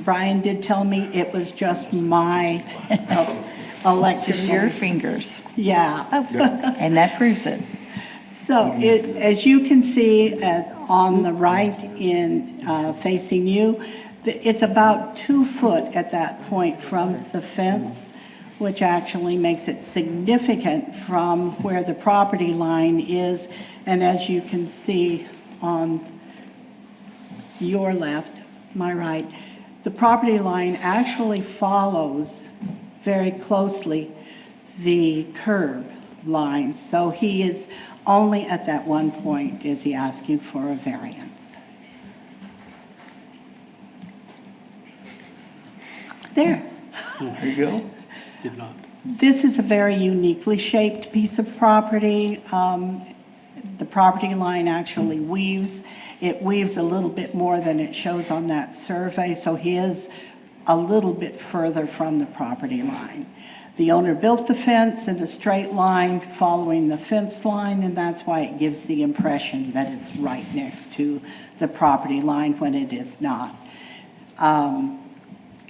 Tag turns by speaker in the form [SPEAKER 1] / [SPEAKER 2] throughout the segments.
[SPEAKER 1] Brian did tell me it was just my
[SPEAKER 2] Just
[SPEAKER 1] election.
[SPEAKER 2] your fingers.
[SPEAKER 1] Yeah.
[SPEAKER 2] Oh. And that proves it.
[SPEAKER 1] So it, as you can see at, on the right in, uh, facing you, th- it's about two foot at that point from the fence, which actually makes it significant from where the property line is. And as you can see on your left, my right, the property line actually follows very closely the curb line. So he is, only at that one point is he asking for a variance. There.
[SPEAKER 3] There you go. Did not.
[SPEAKER 1] This is a very uniquely shaped piece of property. Um, The property line actually weaves. It weaves a little bit more than it shows on that survey, so he is a little bit further from the property line. The owner built the fence in a straight line following the fence line, and that's why it gives the impression that it's right next to the property line when it is not. Um,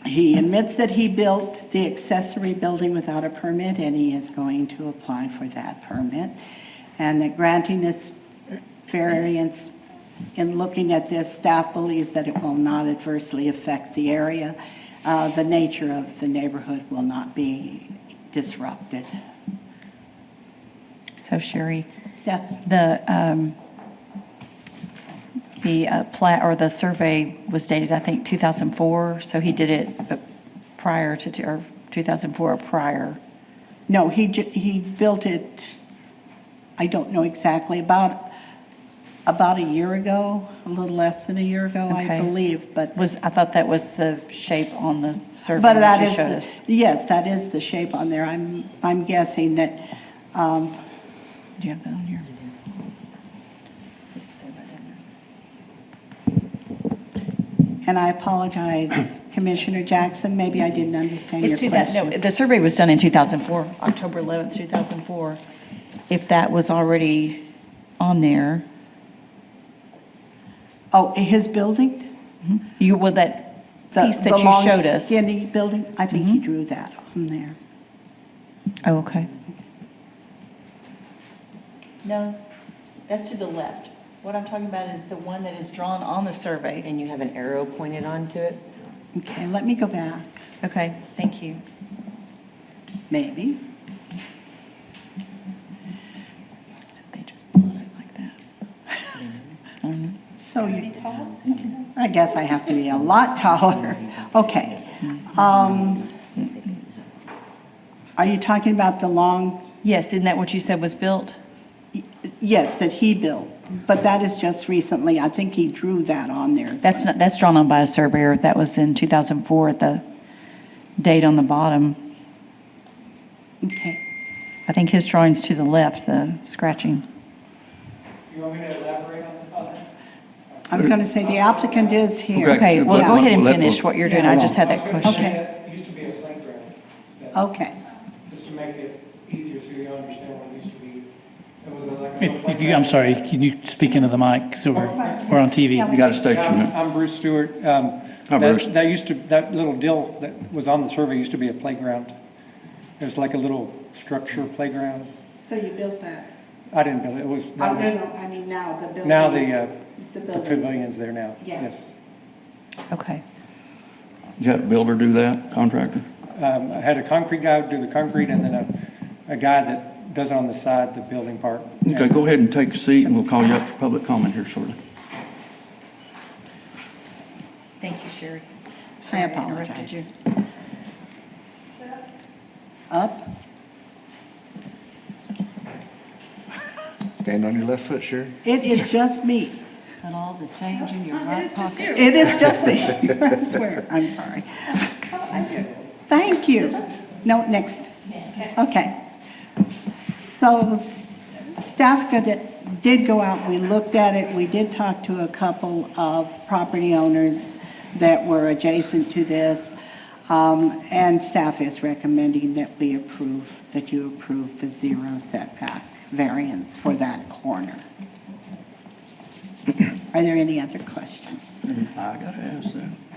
[SPEAKER 1] He admits that he built the accessory building without a permit, and he is going to apply for that permit. And that granting this variance, in looking at this, staff believes that it will not adversely affect the area. Uh, The nature of the neighborhood will not be disrupted.
[SPEAKER 2] So Sherry,
[SPEAKER 1] Yes,
[SPEAKER 2] the, um, the uh, plat, or the survey was dated, I think, 2004, so he did it uh, prior to, two- or 2004 or prior.
[SPEAKER 1] no, he, ju- he built it, I don't know exactly, about, about a year ago, a little less than a year ago, I
[SPEAKER 2] Okay.
[SPEAKER 1] believe, but
[SPEAKER 2] Was, I thought that was the shape on the survey
[SPEAKER 1] But that
[SPEAKER 2] that you
[SPEAKER 1] is,
[SPEAKER 2] showed us.
[SPEAKER 1] the- yes, that is the shape on there. I'm, I'm guessing that, um,
[SPEAKER 2] Do you have that on here?
[SPEAKER 1] and I apologize, Commissioner Jackson, maybe I didn't understand your
[SPEAKER 2] It's 2000, no,
[SPEAKER 1] question.
[SPEAKER 2] the survey was done in 2004, October 11th, 2004. If that was already on there,
[SPEAKER 1] Oh, his building?
[SPEAKER 2] you, well, that
[SPEAKER 1] The-
[SPEAKER 2] piece that
[SPEAKER 1] the long
[SPEAKER 2] you showed us. Mm-hmm.
[SPEAKER 1] Skinny building? I think he drew that on there.
[SPEAKER 2] Oh, okay. No, that's to the left. What I'm talking about is the one that is drawn on the survey.
[SPEAKER 4] And you have an arrow pointed onto it?
[SPEAKER 1] Okay, let me go back,
[SPEAKER 2] Okay, thank you.
[SPEAKER 1] maybe.
[SPEAKER 2] They just plot it like that.
[SPEAKER 1] So you, I guess I have to be a lot taller. Okay. Um, Are you talking about the long
[SPEAKER 2] Yes, isn't that what you said was built?
[SPEAKER 1] Yes, that he built, but that is just recently. I think he drew that on there.
[SPEAKER 2] That's not, that's drawn on by a surveyor. That was in 2004 at the date on the bottom.
[SPEAKER 1] Okay.
[SPEAKER 2] I think his drawing's to the left, the scratching.
[SPEAKER 5] You want me to elaborate on the other?
[SPEAKER 1] I was going to say the applicant is here.
[SPEAKER 2] Okay, well, go ahead and
[SPEAKER 6] Let-
[SPEAKER 2] finish what you're doing. I just had that
[SPEAKER 5] I was gonna
[SPEAKER 2] question.
[SPEAKER 5] say
[SPEAKER 1] Okay.
[SPEAKER 5] that Used to be a playground. that-
[SPEAKER 1] Okay,
[SPEAKER 5] Just to make it easier so you understand what it used to be. It was like a
[SPEAKER 7] If
[SPEAKER 5] little
[SPEAKER 7] if you, I'm
[SPEAKER 5] playground.
[SPEAKER 7] sorry, can you speak into the mic, so we're, we're on TV?
[SPEAKER 1] Yeah.
[SPEAKER 6] You got a station
[SPEAKER 5] Yeah, I'm-
[SPEAKER 6] there.
[SPEAKER 5] I'm Bruce Stewart. Um,
[SPEAKER 6] Hi,
[SPEAKER 5] that-
[SPEAKER 6] Bruce.
[SPEAKER 5] That used to, that little dill that was on the survey used to be a playground. It was like a little structure playground.
[SPEAKER 1] so you built that.
[SPEAKER 5] I didn't build it, it was,
[SPEAKER 1] Oh,
[SPEAKER 5] that
[SPEAKER 1] no,
[SPEAKER 5] was-
[SPEAKER 1] no, I mean now the building.
[SPEAKER 5] now the, uh,
[SPEAKER 1] The
[SPEAKER 5] the
[SPEAKER 1] building.
[SPEAKER 5] pavilion's there now.
[SPEAKER 1] Yeah.
[SPEAKER 5] Yes.
[SPEAKER 2] Okay.
[SPEAKER 6] You had a builder do that, contractor?
[SPEAKER 5] Um, I had a concrete guy do the concrete and then a, a guy that does it on the side, the building part.
[SPEAKER 6] Okay, go ahead and take a seat, and we'll call you up for public comment here shortly.
[SPEAKER 2] Thank you, Sherry.
[SPEAKER 1] I
[SPEAKER 2] Sorry interrupted
[SPEAKER 1] apologize.
[SPEAKER 2] you.
[SPEAKER 1] Up?
[SPEAKER 8] Stand on your left foot, sure.
[SPEAKER 1] It is just me.
[SPEAKER 2] Put all the change in your right pocket.
[SPEAKER 1] It is just me. I swear, I'm sorry. Thank you. No, next. Okay. So s- staff go- did go out, we looked at it, we did talk to a couple of property owners that were adjacent to this, um, and staff is recommending that we approve, that you approve the zero setback variance for that corner. Are there any other questions?
[SPEAKER 6] I gotta ask that.